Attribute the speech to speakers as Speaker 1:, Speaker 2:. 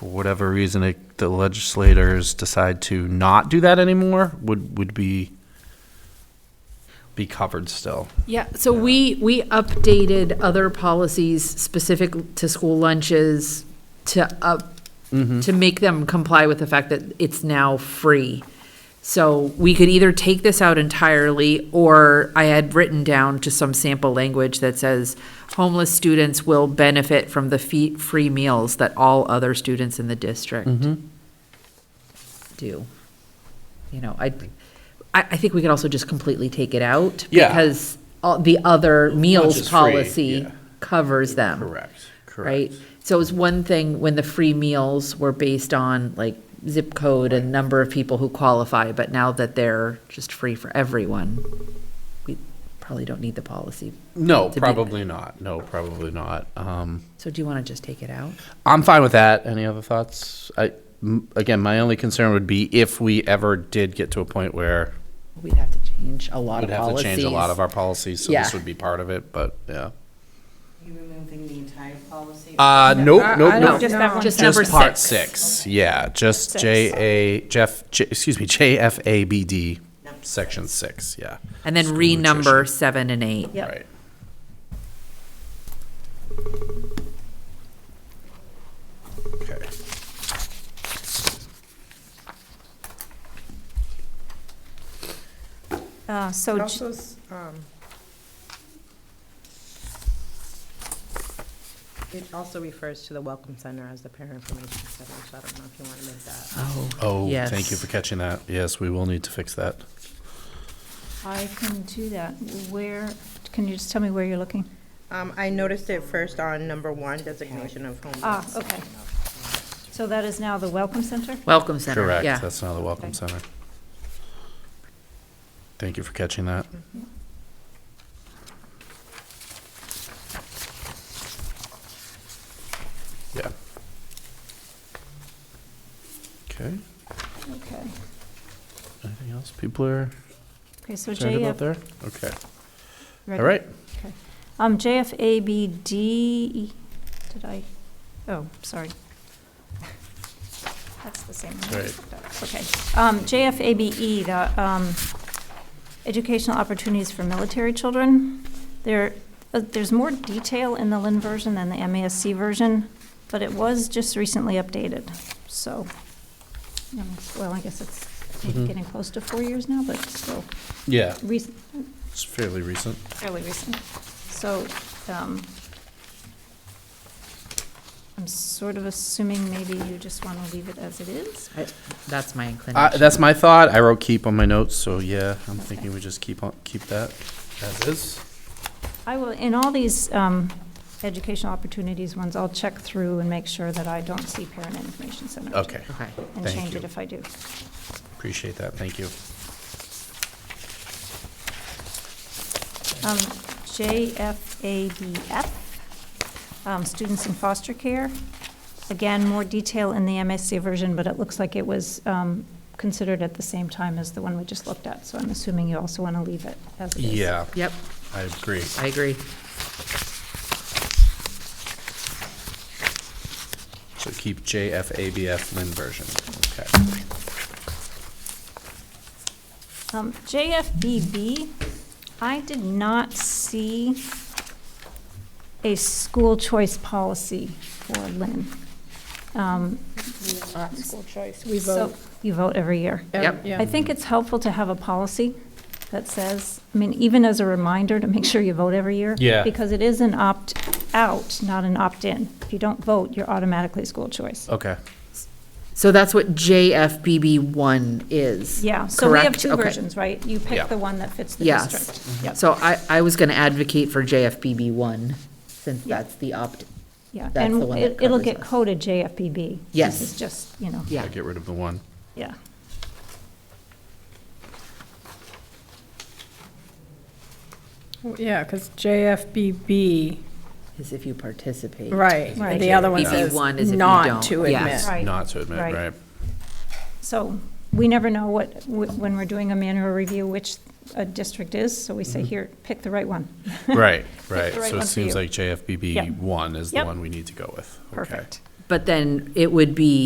Speaker 1: for whatever reason, it- the legislators decide to not do that anymore, would, would be, be covered still.
Speaker 2: Yeah, so we, we updated other policies specific to school lunches to up,
Speaker 1: Mm-hmm.
Speaker 2: to make them comply with the fact that it's now free. So we could either take this out entirely, or I had written down just some sample language that says homeless students will benefit from the fee, free meals that all other students in the district
Speaker 1: Mm-hmm.
Speaker 2: do. You know, I, I, I think we could also just completely take it out.
Speaker 1: Yeah.
Speaker 2: Because all, the other
Speaker 1: is
Speaker 2: meals
Speaker 1: free,
Speaker 2: policy
Speaker 1: yeah.
Speaker 2: covers them. Right? So it was one thing when the free meals were based on like zip code and number of people who qualify, but now that they're just free for everyone, we probably don't need the policy.
Speaker 1: No,
Speaker 2: To be-
Speaker 1: probably not. No, probably not. Um,
Speaker 2: So do you want to just take it out?
Speaker 1: I'm fine with that. Any other thoughts? I, m- again, my only concern would be if we ever did get to a point where
Speaker 2: We'd have to change a lot
Speaker 1: we'd
Speaker 2: of
Speaker 1: have to
Speaker 2: policies.
Speaker 1: change a lot of our policies, so
Speaker 2: Yeah.
Speaker 1: this would be part of it, but, yeah.
Speaker 3: You removing the entire policy?
Speaker 1: Uh, nope, nope,
Speaker 2: No,
Speaker 1: nope.
Speaker 4: Just that one.
Speaker 2: just number
Speaker 1: Just part
Speaker 2: six.
Speaker 1: six, yeah, just
Speaker 4: Six.
Speaker 1: J A, Jeff, J- excuse me, J F A B D,
Speaker 3: Number
Speaker 1: section six, yeah.
Speaker 2: And then
Speaker 1: School
Speaker 2: renumber
Speaker 1: nutrition.
Speaker 2: seven and eight.
Speaker 4: Yep.
Speaker 1: Right. Okay.
Speaker 4: Uh, So,
Speaker 5: It
Speaker 4: j-
Speaker 5: also, s- um, it also refers to the Welcome Center as the parent information center, so I don't know if you want to make that.
Speaker 2: Oh,
Speaker 1: Oh,
Speaker 2: yes.
Speaker 1: thank you for catching that. Yes, we will need to fix that.
Speaker 4: I can do that. Where, can you just tell me where you're looking?
Speaker 5: Um, I noticed it first on number one, designation of
Speaker 4: Ah,
Speaker 5: homeless.
Speaker 4: okay. So that is now the Welcome Center?
Speaker 2: Welcome Center,
Speaker 1: Correct,
Speaker 2: yeah.
Speaker 1: that's now the Welcome
Speaker 4: Okay.
Speaker 1: Center. Thank you for catching that. Yeah. Okay,
Speaker 4: Okay.
Speaker 1: anything else people are
Speaker 4: Okay, so
Speaker 1: concerned about
Speaker 4: JF.
Speaker 1: there? Okay, all right.
Speaker 4: Um, JFABD, E, did I, oh, sorry. That's the same. one.
Speaker 1: Right.
Speaker 4: Okay. Um, JFABE, the, um, Educational Opportunities for Military Children. There, uh, there's more detail in the Lynn version than the MASC version, but it was just recently updated, so. you know, Well, I guess it's
Speaker 1: Mhm.
Speaker 4: getting close to four years now, but still,
Speaker 1: Yeah,
Speaker 4: recent,
Speaker 1: it's fairly recent.
Speaker 4: fairly recent. So, um, I'm sort of assuming maybe you just want to leave it as it is?
Speaker 2: I- That's my
Speaker 1: Uh,
Speaker 2: inclination.
Speaker 1: that's my thought. I wrote keep on my notes, so yeah, I'm
Speaker 4: Okay.
Speaker 1: thinking we just keep on, keep that as is.
Speaker 4: I will, in all these um, educational opportunities ones, I'll check through and make sure that I don't see parent information center.
Speaker 1: Okay,
Speaker 2: Okay,
Speaker 4: And
Speaker 1: thank
Speaker 4: change it
Speaker 1: you.
Speaker 4: if I do.
Speaker 1: appreciate that. Thank you.
Speaker 4: Um, JFABF, um, students in foster care. Again, more detail in the MSC version, but it looks like it was um, considered at the same time as the one we just looked at, so I'm assuming you also want to leave it as it is.
Speaker 1: Yeah,
Speaker 2: yep,
Speaker 1: I agree.
Speaker 2: I agree.
Speaker 1: So keep JFABF Lynn version. Okay.
Speaker 4: Um, JFBB, I did not see a school choice policy for Lynn. Um,
Speaker 5: School choice, we
Speaker 4: so- You vote every year.
Speaker 2: Yep.
Speaker 4: I think it's helpful to have a policy that says, I mean, even as a reminder to make sure you vote every year.
Speaker 1: Yeah.
Speaker 4: Because it is an opt-out, not an opt-in. If you don't vote, you're automatically school choice.
Speaker 1: Okay.
Speaker 2: So that's what JFBB one is.
Speaker 4: Yeah, so we have
Speaker 2: correct?
Speaker 4: two
Speaker 2: Okay.
Speaker 4: versions, right? You
Speaker 1: Yeah.
Speaker 4: pick the one that fits the
Speaker 2: Yes.
Speaker 4: district. Yep.
Speaker 2: So I, I was gonna advocate for JFBB one, since
Speaker 4: Yeah.
Speaker 2: that's the opt,
Speaker 4: Yeah,
Speaker 2: That's the
Speaker 4: and
Speaker 2: one
Speaker 4: it-
Speaker 2: that
Speaker 4: it'll
Speaker 2: covers
Speaker 4: get
Speaker 2: us.
Speaker 4: coded JFBB.
Speaker 2: Yes.
Speaker 4: It's just, you know,
Speaker 2: yeah.
Speaker 1: I get rid of the one.
Speaker 4: yeah.
Speaker 6: Yeah, because JFBB,
Speaker 2: Is if you participate.
Speaker 6: right,
Speaker 4: Right.
Speaker 6: the other one
Speaker 2: BB
Speaker 6: says
Speaker 2: one is if you don't.
Speaker 6: not to admit.
Speaker 2: Yes.
Speaker 4: Right.
Speaker 1: Not to admit,
Speaker 4: Right.
Speaker 1: right?
Speaker 4: So we never know what, wh- when we're doing a manual review, which a district is, so we say, here, pick the right one.
Speaker 1: Right, Mm-hmm.
Speaker 4: the
Speaker 1: right.
Speaker 4: right
Speaker 1: So
Speaker 4: one
Speaker 1: it
Speaker 4: for
Speaker 1: seems
Speaker 4: you.
Speaker 1: like
Speaker 4: Yep.
Speaker 1: JFBB one is the
Speaker 4: Yep.
Speaker 1: one we need to go with. Okay.
Speaker 4: Perfect.
Speaker 2: But then it would be